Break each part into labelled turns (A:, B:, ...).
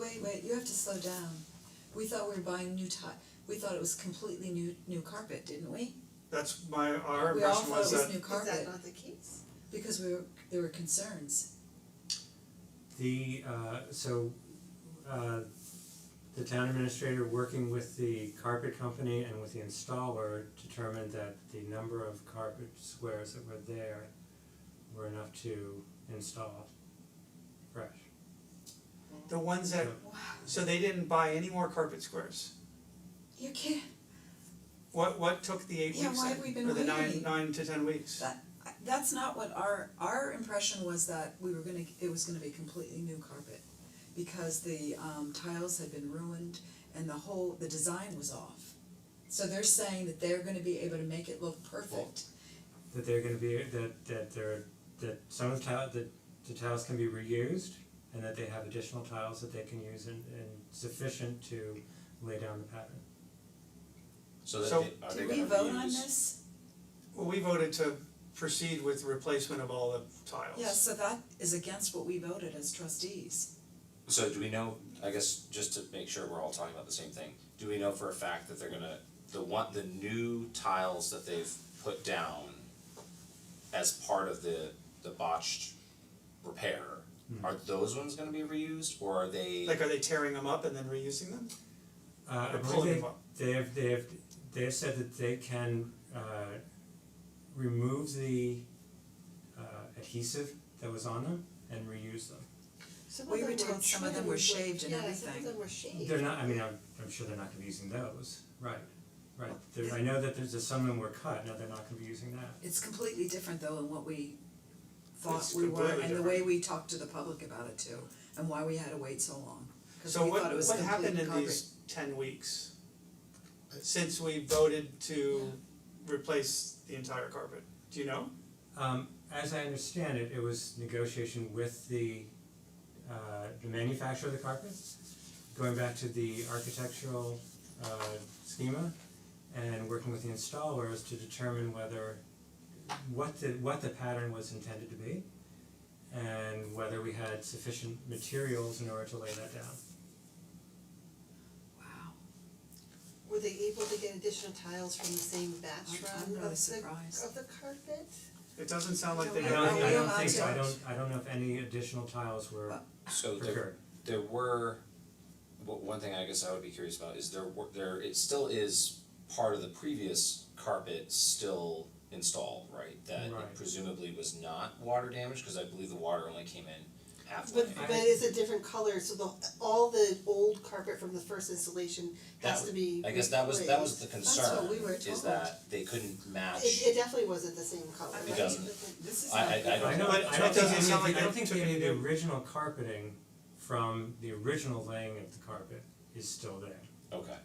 A: to slow down. We thought we were buying new ti- we thought it was completely new new carpet, didn't we?
B: That's my, our
A: We all
B: impression
A: thought it
B: was
A: was
B: that,
A: new carpet
C: not the case?
A: because we were, there were concerns.
D: The uh so uh the town administrator working with the carpet company and with the installer determined that the number of carpet squares that were there were enough to install fresh.
B: the ones that,
D: So-
A: Wow,
B: so they didn't buy any more carpet squares.
A: you kidding?
B: What what took the eight
A: Yeah,
B: weeks
A: why
B: then?
A: have we been
B: or the nine
A: waiting?
B: nine to ten weeks?
A: That that's not what our our impression was that we were gonna it was gonna be completely new carpet because the um tiles had been ruined and the whole the design was off. So they're saying that they're gonna be able to make it look perfect.
D: That they're gonna be that that there that some of the tile that the tiles can be reused and that they have additional tiles that they can use and and sufficient to lay down the pattern.
E: So that
B: So-
E: they, are they
A: Did we
E: gonna
A: vote on
E: reuse-
A: this?
B: Well, we voted to proceed with replacement of all the tiles.
A: Yeah, so that is against what we voted as trustees.
E: So do we know, I guess, just to make sure we're all talking about the same thing, do we know for a fact that they're gonna, the one, the new tiles that they've put down as part of the the botched repair, are those ones gonna be reused or are they?
B: Like, are they tearing them up and then reusing them?
D: Uh I
B: Or
D: believe
B: pulling
D: they
B: them up.
D: they have they have they have said that they can uh remove the uh adhesive that was on them and reuse them.
C: Some
A: We
C: of them
A: retained
C: were
A: some of them were
C: trimmed,
A: shaved and
C: Yeah, some
A: everything.
C: of them were shaved.
D: They're not, I mean, I'm I'm sure they're not gonna be using those, right, right, there, I know that there's a, some of them were cut, no, they're not gonna be using that.
A: It's completely different though than what we thought
B: It's
A: we were
B: completely
A: and the way we talked to the public about it too and why we had to wait so long. Cause
B: So
A: we
B: what
A: thought it was
B: what
A: complete
B: happened in
A: concrete.
B: these ten weeks? Since we voted to replace the entire carpet, do you know?
D: Um as I understand it, it was negotiation with the uh the manufacturer of the carpets, going back to the architectural uh schema and working with the installers to determine whether what the what the pattern was intended to be and whether we had sufficient materials in order to lay that down.
A: Wow,
C: Were they able to get additional tiles from the same batch
A: I'm- I'm
C: run
A: really
C: of the
A: surprised.
C: of the carpet?
B: It doesn't sound like they
D: I
A: No,
B: have.
D: don't I
A: we
D: don't
A: allowed
D: think so, I
A: to-
D: don't I don't know if any additional tiles were
A: But-
E: So there
D: procured.
E: there were, well, one thing I guess I would be curious about is there were, there, it still is part of the previous carpet still installed, right? That
D: Right.
E: it presumably was not water damaged, cause I believe the water only came in halfway.
C: But but it's a different color, so the all the old carpet from the first installation
E: That
C: has to be
E: I guess that was, that was the
A: That's what
E: concern,
A: we were
E: is
A: told.
E: that they couldn't match.
C: replaced. It it definitely wasn't the same color.
A: I
E: It
A: mean,
E: doesn't.
A: this is
E: I-
A: not
E: I- I
A: good.
D: I
E: don't-
D: don't,
B: But
D: I
B: it
D: don't
B: doesn't
D: think any,
B: sound
D: of the-
B: like
D: I don't
B: they
D: think
B: took
D: any of
B: any-
D: the original carpeting from the original laying of the carpet is still there.
E: Okay,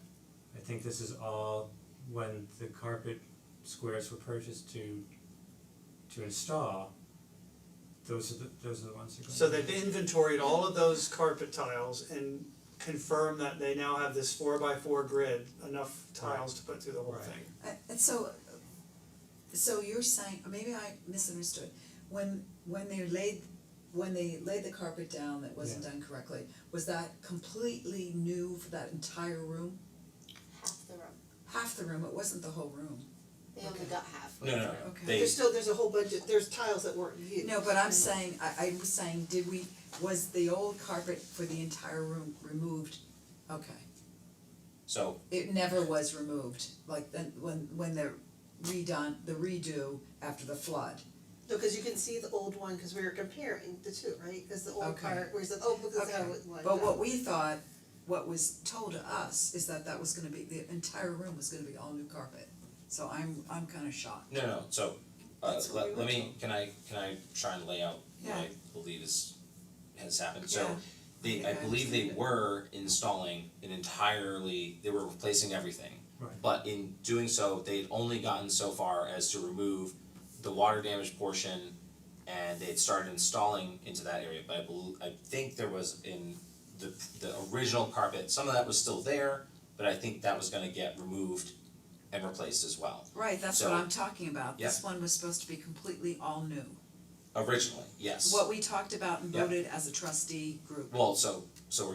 D: I think this is all when the carpet squares were purchased to to install, those are the, those are the ones that go.
B: So
D: in.
B: they've inventoried all of those carpet tiles and confirm that they now have this four by four grid, enough tiles to put through the whole
D: Right.
B: thing.
A: Uh, And so, so you're saying, or maybe I misunderstood, when when they laid, when they laid the carpet down that wasn't done correctly, was that completely new for that entire room?
C: Half the room,
A: Half the room, it wasn't the whole room.
C: they only got half.
E: no, no, no,
A: Okay.
E: they,
C: There's still, there's a whole bunch of, there's tiles that weren't used.
A: No, but I'm saying, I I was saying, did we, was the old carpet for the entire room removed? Okay,
E: so,
A: it never was removed, like then when when they're redone, the redo after the flood.
C: No, cause you can see the old one, cause we were comparing the two, right, cause the old
A: Okay.
C: part, where's the, oh, look, that's how
A: Okay,
C: it was.
A: but what we thought, what was told to us is that that was gonna be, the entire room was gonna be all new carpet. So I'm I'm kinda shocked.
E: no, no, so, uh,
C: That's what we
E: let, let
C: were
E: me,
C: told.
E: can I, can I try and lay out what I
A: Yeah.
E: believe is, has happened, so.
A: Yeah.
E: They,
A: Yeah,
E: I
A: I
E: believe they
A: understand it.
E: were installing an entirely, they were replacing everything.
D: Right.
E: But in doing so, they'd only gotten so far as to remove the water damage portion and they'd started installing into that area, but I bel- I think there was in the the original carpet, some of that was still there, but I think that was gonna get removed and replaced as well.
A: Right, that's what
E: So-
A: I'm talking about. This one was supposed to be completely all new.
E: Originally, yes.
A: What we talked about and
E: Yeah.
A: voted as a trustee group.
E: Well, so so we're